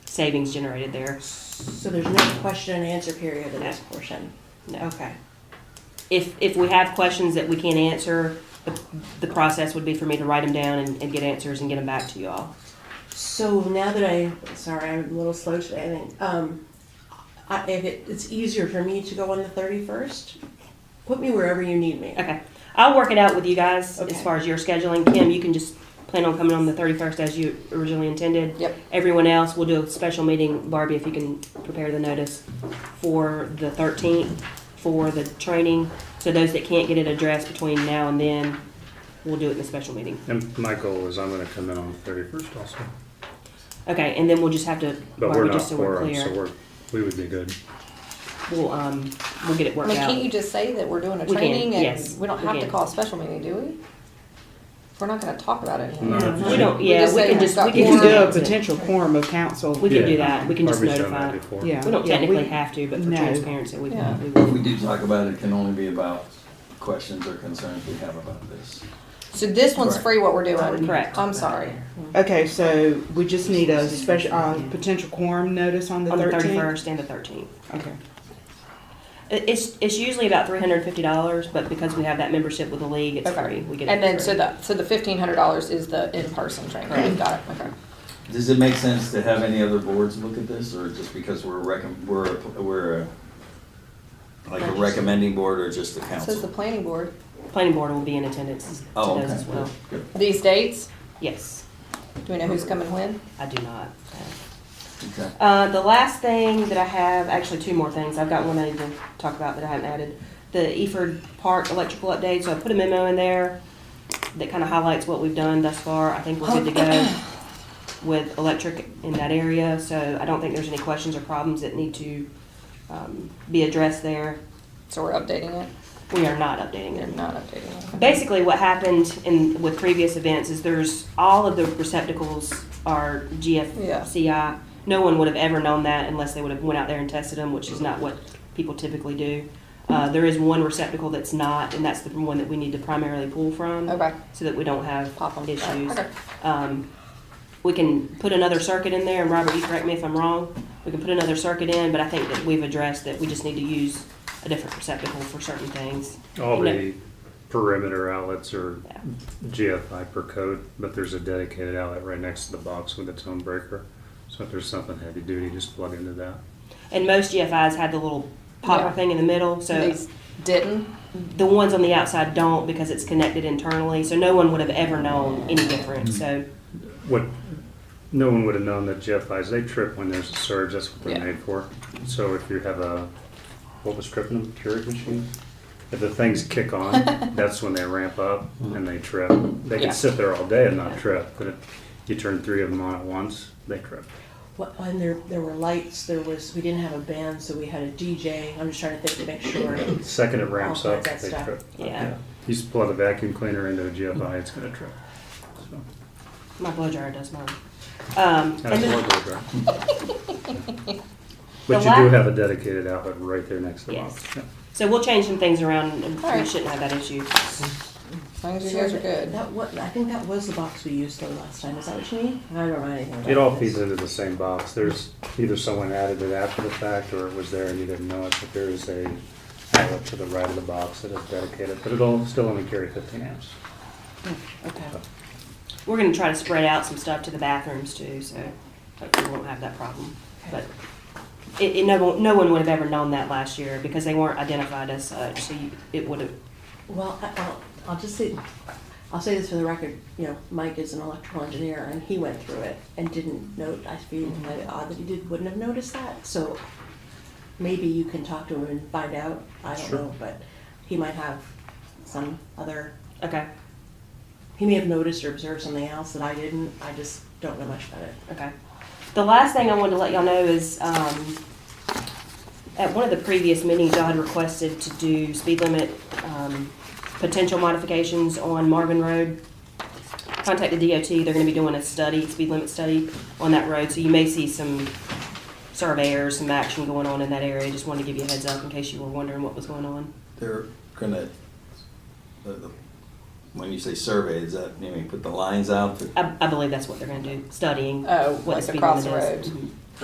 savings generated there. So there's no question and answer period in this portion? No. Okay. If, if we have questions that we can't answer, the, the process would be for me to write them down and, and get answers and get them back to you all. So now that I, sorry, I'm a little slow today, I think. Um, I, if it, it's easier for me to go on the thirty-first, put me wherever you need me. Okay. I'll work it out with you guys Okay. as far as your scheduling. Kim, you can just plan on coming on the 31st as you originally intended. Yep. Everyone else, we'll do a special meeting. Barbie, if you can prepare the notice for the 13th for the training. So those that can't get it addressed between now and then, we'll do it in the special meeting. And my goal is I'm gonna come in on the thirty-first also, Okay, and then we'll just have to, but Barbie, we're not just so we're quorum, so clear, we're, we would be good. we'll, um, we'll get it I worked mean, out. can't you just say that we're doing a We can, training yes, and we don't we have to can. call a special meeting, do we? We're not gonna talk about it. No, anymore. We don't, We yeah, just we say can we've just, got we You You can can just do a announce it. potential quorum of council. We can do Yeah. that. We can just Barbie's done notify. that before. Yeah. We don't yeah, technically have to, but for No. transparency, we Yeah. we What will. we do talk about, it can only be about questions or concerns we have about this. So this one's Correct. free, what we're doing? Correct. I'm sorry. Okay, so we just need a special, uh, potential quorum notice on the On the thirteenth? thirty-first and the thirteenth. Okay. It's, it's usually about three hundred and fifty dollars, but because we have that membership with the league, it's Okay. free. We get it And then, free. so the, so the fifteen hundred dollars is the in-person training, Correct. got it, okay. Does it make sense to have any other boards look at this, or just because we're recom, we're, a- we're a- like a recommending board or just the It Says the council? planning board. Planning board will be in attendance to Oh, those okay. as well. Good. These dates, Yes, do we know who's coming when? I do not. Okay. Uh, the last thing that I have, actually two more things. I've got one I need to talk about that I haven't added. The Eford Park electrical update, so I put a memo in there that kind of highlights what we've done thus far. I think we're good to go with electric in that area, so I don't think there's any questions or problems that need to, um, be addressed there. So we're updating it? We are not updating They're it. not updating it. Basically, what happened in, with previous events is there's, all of the receptacles are GFCI. No one would have ever known that unless they would have went out there and tested them, which is not what people typically do. Uh, there is one receptacle that's not, and that's the one that we need to primarily pull from. Okay. So that we don't have Pop 'em. issues. Okay. Um, we can put another circuit in there, and Robert, you correct me if I'm wrong, we can put another circuit in, but I think that we've addressed that we just need to use a different receptacle for certain things. All You know- the perimeter outlets are Yeah. GFI per code, but there's a dedicated outlet right next to the box with its own breaker. So if there's something heavy duty, just plug into that. And most GFIs have the little popper Yeah. thing in the middle, so These didn't? the ones on the outside don't because it's connected internally. So no one would have ever known any difference. So What, no one would have known that GFIs, they trip when there's a surge, that's what Yeah. they're made for. So if you have a, what was tripping them, Keurig machine? If the things kick on, that's when they ramp up and they trip. They Yeah. can sit there all day and not trip, but if you turn three of them on at once, they trip. What, and there, there were lights, there was, we didn't have a band, so we had a DJ, I'm just trying to think to make sure. The Second it ramps Oh, up, that's they tough. trip. Yeah. You just plug a vacuum cleaner into a GFI, it's gonna trip. So, my blow dryer does mine. Um, and That's then- horrible, right? The But you do la- have a dedicated outlet right there next to the Yes. box. Yeah. so we'll change some things around, and All we right. shouldn't have that issue. As long as you guys are good. That what, I think that was the box we used though last time, is that what you mean? I don't know anything about It all this. feeds into the same box. There's either someone added it after the fact or it was there and you didn't know it, but there is a outlet to the right of the box that is dedicated, but it'll still only carry fifteen amps. Okay. We're going to try to spread out some stuff to the bathrooms too, so hopefully we won't have that problem. But it, it, no, one- no one would have ever known that last year because they weren't identified as such. So you, it would have. Well, I- I'll, I'll just say, I'll say this for the record, you know, Mike is an electrical engineer and he went through it and didn't note, I feel kind of odd that he did, wouldn't have noticed that, so maybe you can talk to him and find out, I don't Sure. know, but he might have some other, Okay. he may have noticed or observed something else that I didn't, I just don't know much about it. Okay. The last thing I wanted to let y'all know is, um, at one of the previous meetings, y'all had requested to do speed limit, um, potential modifications on Marvin Road. Contact the DOT, they're gonna be doing a study, speed limit study on that road, so you may see some surveyors, some action going on in that area. Just wanted to give you a heads up in case you were wondering what was going on. They're gonna, the- the- when you say survey, is that, you mean put the lines out? I, I believe that's what they're gonna do, studying Oh, what the like speed across limit is. the road. Mhm.